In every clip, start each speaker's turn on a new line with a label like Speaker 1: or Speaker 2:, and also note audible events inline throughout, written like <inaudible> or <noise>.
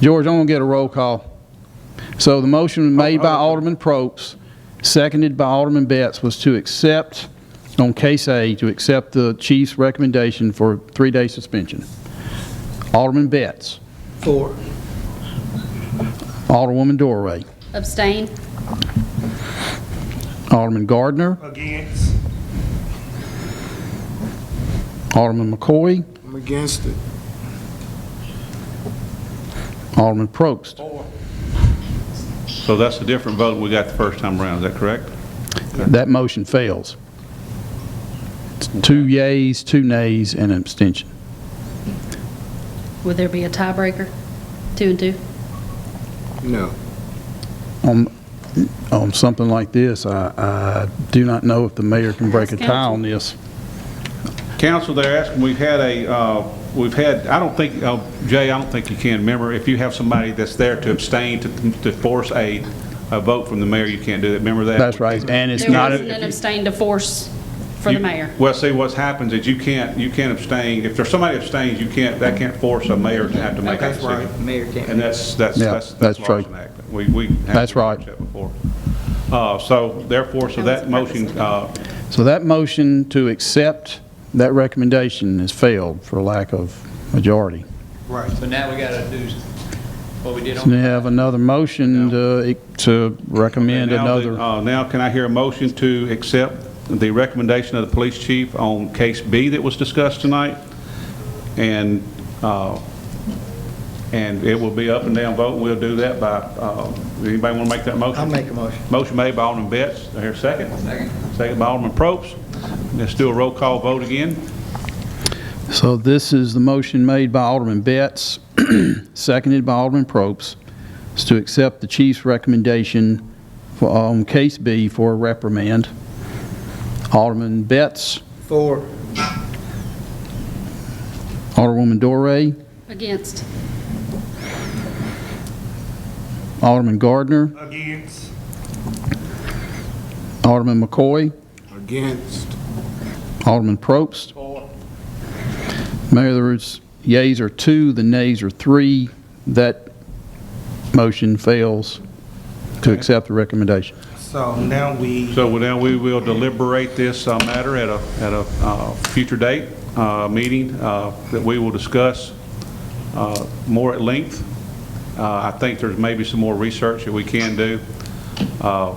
Speaker 1: George, I'm going to get a roll call. So the motion made by Alderman Probst, seconded by Alderman Betts, was to accept, on case A, to accept the chief's recommendation for three-day suspension. Alderman Betts.
Speaker 2: Four.
Speaker 1: Alderwoman Dorway.
Speaker 3: Abstain.
Speaker 1: Alderman Gardner.
Speaker 2: Against.
Speaker 1: Alderman McCoy.
Speaker 2: I'm against it.
Speaker 1: Alderman Probst.
Speaker 4: So that's a different vote we got the first time around, is that correct?
Speaker 1: That motion fails. Two yays, two nays, and an abstention.
Speaker 3: Would there be a tiebreaker? Two and two?
Speaker 2: No.
Speaker 1: On, on something like this, I, I do not know if the mayor can break a tie on this.
Speaker 4: Council, they're asking, we've had a, uh, we've had, I don't think, uh, Jay, I don't think you can, remember, if you have somebody that's there to abstain, to to force a, a vote from the mayor, you can't do that, remember that?
Speaker 1: That's right, and it's
Speaker 3: There
Speaker 1: not,
Speaker 3: wasn't an
Speaker 1: a-
Speaker 3: abstain to force for the
Speaker 4: You-
Speaker 3: mayor.
Speaker 4: Well, see, what happens is you can't, you can't abstain, if there's somebody abstains, you can't, that can't force a mayor to have to make that
Speaker 5: That's
Speaker 4: decision.
Speaker 5: right, mayor can't.
Speaker 4: And that's, that's,
Speaker 1: Yeah,
Speaker 4: that's,
Speaker 1: that's
Speaker 4: that's
Speaker 1: true.
Speaker 4: Lawson Act. We, we. have
Speaker 1: That's right.
Speaker 4: that Before. Uh, so therefore, so that motion, uh,
Speaker 1: so that motion to accept that recommendation has failed for lack of majority.
Speaker 5: Right, so now we gotta do what we did
Speaker 1: And
Speaker 5: on,
Speaker 1: you have another motion to, to recommend
Speaker 4: now the-
Speaker 1: another,
Speaker 4: uh, Now, can I hear a motion to accept the recommendation of the police chief on case B that was discussed tonight? And, uh, and it will be up and down vote, we'll do that by, uh, anybody want to make that motion?
Speaker 5: I'll make a motion.
Speaker 4: Motion made by Alderman Betts, do I hear a second? Second. Second by Alderman Probst. Let's do a roll call vote again.
Speaker 1: so this is the motion made by Alderman Betts, <clears throat> seconded by Alderman Probst, is to accept the chief's recommendation for, on case B for a reprimand. Alderman Betts,
Speaker 5: four,
Speaker 1: Alderwoman Dorey,
Speaker 3: Against.
Speaker 1: Alderman Gardner,
Speaker 2: Against.
Speaker 1: Alderman McCoy,
Speaker 2: Against.
Speaker 1: Alderman Probst. Mayor, there is yays are two, the nays are three. That motion fails to accept the recommendation.
Speaker 2: So now we,
Speaker 4: So now we will deliberate this uh, matter at a, at a uh, future date, uh, meeting, uh, that we will discuss uh, more at length. Uh, I think there's maybe some more research that we can do uh,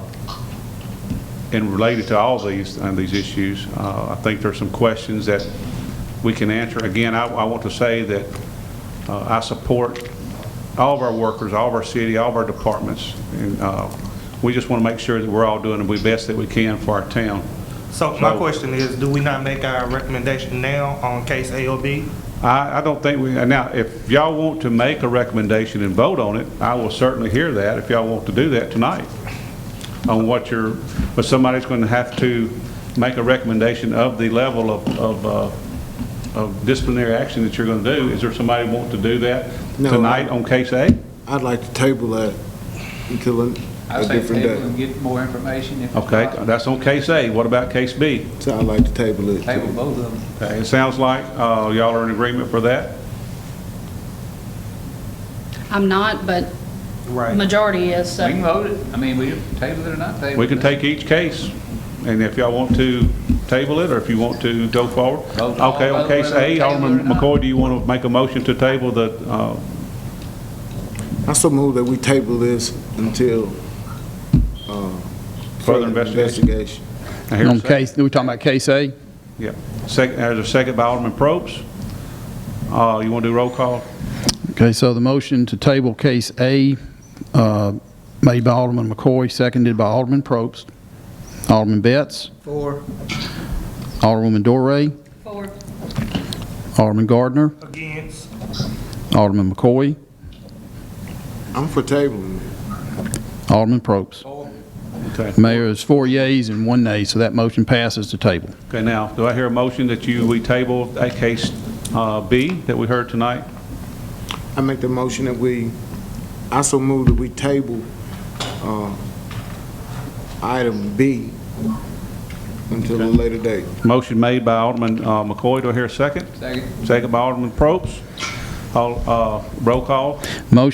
Speaker 4: and related to all these, uh, these issues. Uh, I think there's some questions that we can answer. Again, I, I want to say that uh, I support all of our workers, all of our city, all of our departments. And uh, we just want to make sure that we're all doing the best that we can for our town.
Speaker 6: So my
Speaker 4: So-
Speaker 6: question is, do we not make our recommendation now on case A or B?
Speaker 4: I, I don't think we, now, if y'all want to make a recommendation and vote on it, I will certainly hear that if y'all want to do that tonight. On what you're, but somebody's going to have to make a recommendation of the level of, of, uh, of disciplinary action that you're going to do. Is there somebody want to do that
Speaker 2: No.
Speaker 4: tonight on case A?
Speaker 2: I'd like to table that until a
Speaker 5: I
Speaker 2: a
Speaker 5: say
Speaker 2: different
Speaker 5: table
Speaker 2: day.
Speaker 5: and get more information if it's
Speaker 4: Okay,
Speaker 5: not,
Speaker 4: that's on case A. What about case B?
Speaker 2: So I'd like to table it.
Speaker 5: table both of them.
Speaker 4: Okay, It sounds like, uh, y'all are in agreement for that?
Speaker 3: I'm not, but majority is,
Speaker 5: We can
Speaker 3: so.
Speaker 5: vote it, I mean, we table it or not table it.
Speaker 4: We can take each case, and if y'all want to table it, or if you want to go forward.
Speaker 5: Vote all
Speaker 4: Okay, on
Speaker 5: whether
Speaker 4: case
Speaker 5: we
Speaker 4: A,
Speaker 5: table it or
Speaker 4: Alderman
Speaker 5: not.
Speaker 4: McCoy, do you want to make a motion to table the, uh,
Speaker 2: I so move that we table this until uh,
Speaker 4: Further investigation.
Speaker 2: investigation.
Speaker 4: I hear a
Speaker 1: On
Speaker 4: second?
Speaker 1: case, we're talking about case A?
Speaker 4: Yeah, second, there's a second by Alderman Probst. Uh, You want to do roll call?
Speaker 1: Okay, so the motion to table case A, uh, made by Alderman McCoy, seconded by Alderman Probst. Alderman Betts,
Speaker 5: Four.
Speaker 1: Alderwoman Dorey,
Speaker 3: Four.
Speaker 1: Alderman Gardner,
Speaker 6: Against.
Speaker 1: Alderman McCoy,
Speaker 2: I'm for tabling it.
Speaker 1: Alderman Probst.
Speaker 4: Okay.
Speaker 1: Mayor, is four yays and one nay, so that motion passes to table.
Speaker 4: Okay, now, do I hear a motion that you, we table a case uh, B that we heard tonight?
Speaker 2: I make the motion that we, I so move that we table uh, item B until a later date.
Speaker 4: Motion made by Alderman uh, McCoy, do I hear a second?
Speaker 5: Second.
Speaker 4: Second by Alderman Probst. All, uh, Roll call?
Speaker 1: Motion